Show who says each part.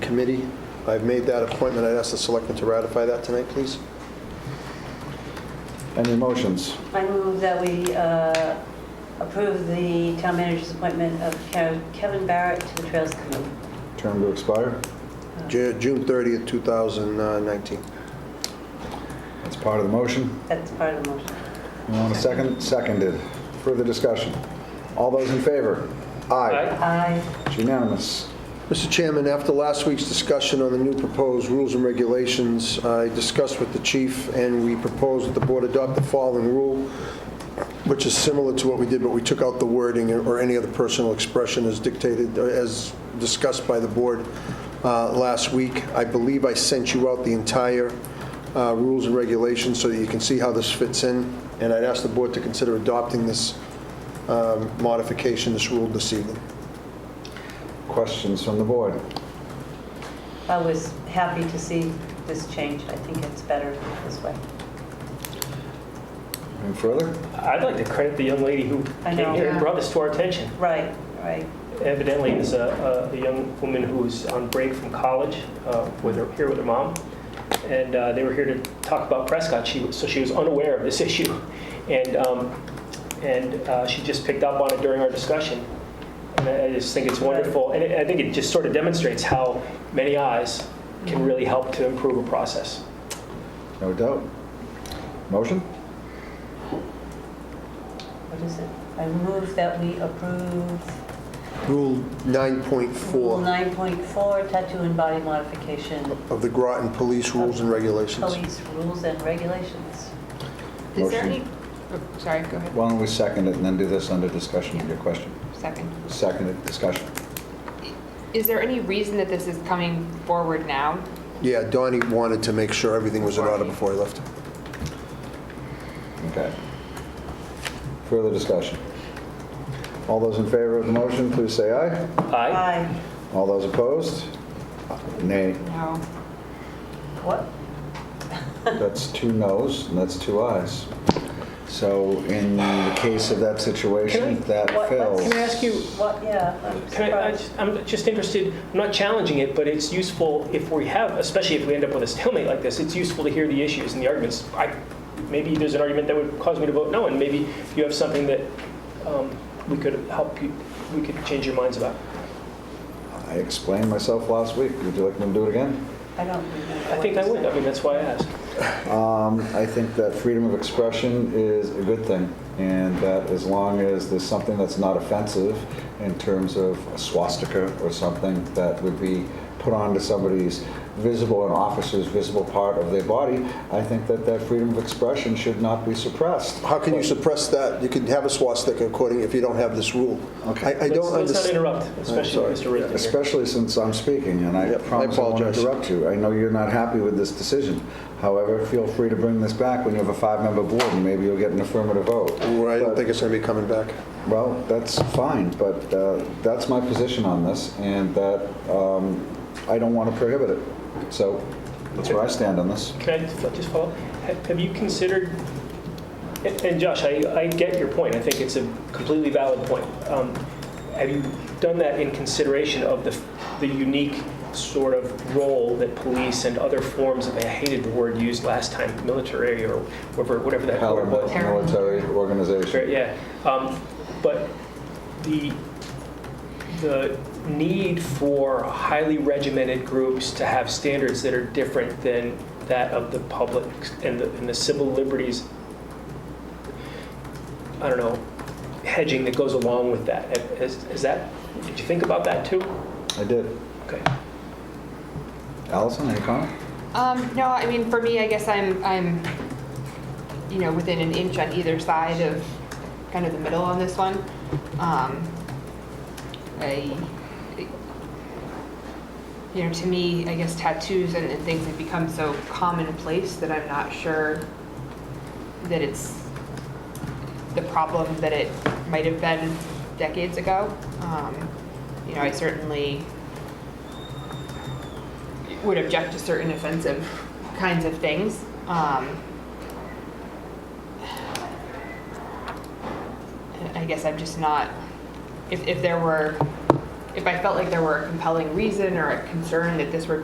Speaker 1: Committee. I've made that appointment. I'd ask the selectmen to ratify that tonight, please.
Speaker 2: Any motions?
Speaker 3: I move that we uh, approve the town manager's appointment of Ke- Kevin Barrett to the Trails Committee.
Speaker 2: Term to expire?
Speaker 1: Ju- June 30th, 2019.
Speaker 2: That's part of the motion.
Speaker 3: That's part of the motion.
Speaker 2: You want a second? Seconded. Further discussion? All those in favor? Aye.
Speaker 3: Aye.
Speaker 2: It's unanimous.
Speaker 1: Mr. Chairman, after last week's discussion on the new proposed rules and regulations, I discussed with the chief, and we proposed that the board adopt the following rule, which is similar to what we did, but we took out the wording or any other personal expression as dictated, or as discussed by the board uh, last week. I believe I sent you out the entire uh, rules and regulations so that you can see how this fits in, and I'd ask the board to consider adopting this um, modification, this rule this evening.
Speaker 2: Questions from the board?
Speaker 3: I was happy to see this change. I think it's better this way.
Speaker 2: Any further?
Speaker 4: I'd like to credit the young lady who
Speaker 3: I
Speaker 4: came
Speaker 3: know.
Speaker 4: here
Speaker 3: Yeah.
Speaker 4: and brought this to our attention.
Speaker 3: Right, right.
Speaker 4: Evidently, there's a, a- a young woman who was on break from college uh, with her, here with her mom, and uh, they were here to talk about Prescott. She was, so she was unaware of this issue, and um, and uh, she just picked up on it during our discussion. And I I just think it's wonderful, and it, I think it just sort of demonstrates how many eyes can really help to improve a process.
Speaker 2: No doubt. Motion?
Speaker 3: What is it? I move that we approve
Speaker 1: Rule
Speaker 3: Rule
Speaker 1: 9.4.
Speaker 3: 9.4, tattoo and body modification,
Speaker 1: of the Groton Police Rules and Regulations.
Speaker 3: police rules and regulations.
Speaker 5: Is there
Speaker 2: Motion.
Speaker 5: any, oh, sorry, go ahead,
Speaker 2: Why don't we second it and then do this under discussion of your question?
Speaker 5: second.
Speaker 2: Seconded, discussion.
Speaker 5: Is there any reason that this is coming forward now?
Speaker 1: Yeah, Donnie wanted to make sure everything was in order before he left.
Speaker 2: Okay. Further discussion? All those in favor of the motion, please say aye.
Speaker 4: Aye.
Speaker 3: Aye.
Speaker 2: All those opposed? Nay.
Speaker 5: No.
Speaker 3: What?
Speaker 2: That's two noes, and that's two ayes. So in the case of that situation,
Speaker 4: Can I-
Speaker 2: that
Speaker 3: what-
Speaker 2: fails.
Speaker 4: Can I ask you,
Speaker 3: What, yeah, I'm
Speaker 4: Can I, I
Speaker 3: surprised.
Speaker 4: just- I'm just interested, I'm not challenging it, but it's useful if we have, especially if we end up with a stalemate like this, it's useful to hear the issues and the arguments. I, maybe there's an argument that would cause me to vote no, and maybe you have something that um, we could help you, we could change your minds about.
Speaker 2: I explained myself last week. Would you like me to do it again?
Speaker 3: I don't remember.
Speaker 4: I think I would, I mean, that's why I asked.
Speaker 2: Um, I think that freedom of expression is a good thing, and that as long as there's something that's not offensive in terms of a swastika or something that would be put onto somebody's visible, an officer's visible part of their body, I think that that freedom of expression should not be suppressed.
Speaker 1: How can you suppress that? You can have a swastika according, if you don't have this rule.
Speaker 2: Okay.
Speaker 1: I- I don't
Speaker 4: Let's- Let's not
Speaker 1: understand.
Speaker 4: interrupt, especially
Speaker 1: sorry.
Speaker 4: Mr. Risden here.
Speaker 2: Especially since I'm speaking, and I
Speaker 1: Yep, I
Speaker 2: promise I won't
Speaker 1: apologize.
Speaker 2: interrupt you. I know you're not happy with this decision. However, feel free to bring this back when you have a five-member board, and maybe you'll get an affirmative vote.
Speaker 1: I don't
Speaker 2: But-
Speaker 1: think it's going to be coming back.
Speaker 2: Well, that's fine, but uh, that's my position on this, and that um, I don't want to prohibit it. So that's where I stand on this.
Speaker 4: Can I f- just follow? up? Ha- Have you considered, and- and Josh, I, I get your point, I think it's a completely valid point. Um, Have you done that in consideration of the, f- the unique sort of role that police and other forms of, I hated the word used last time, military or whatever, whatever that word was.
Speaker 2: Paramilitary
Speaker 4: Right,
Speaker 2: organization.
Speaker 4: yeah. Um, But the, the need for highly regimented groups to have standards that are different than that of the public and the, and the civil liberties, I don't know, hedging that goes along with that. Is, is that, did you think about that too?
Speaker 2: I did.
Speaker 4: Okay.
Speaker 2: Allison, any comment?
Speaker 5: Um, no, I mean, for me, I guess I'm, I'm, you know, within an inch on either side of kind of the middle on this one. Um, I, you know, to me, I guess tattoos and, and things have become so commonplace that I'm not sure that it's the problem that it might have been decades ago. Um, you know, I certainly would object to certain offensive kinds of things. Um, I guess I'm just not, if, if there were if I felt like there were a compelling reason or a concern that this were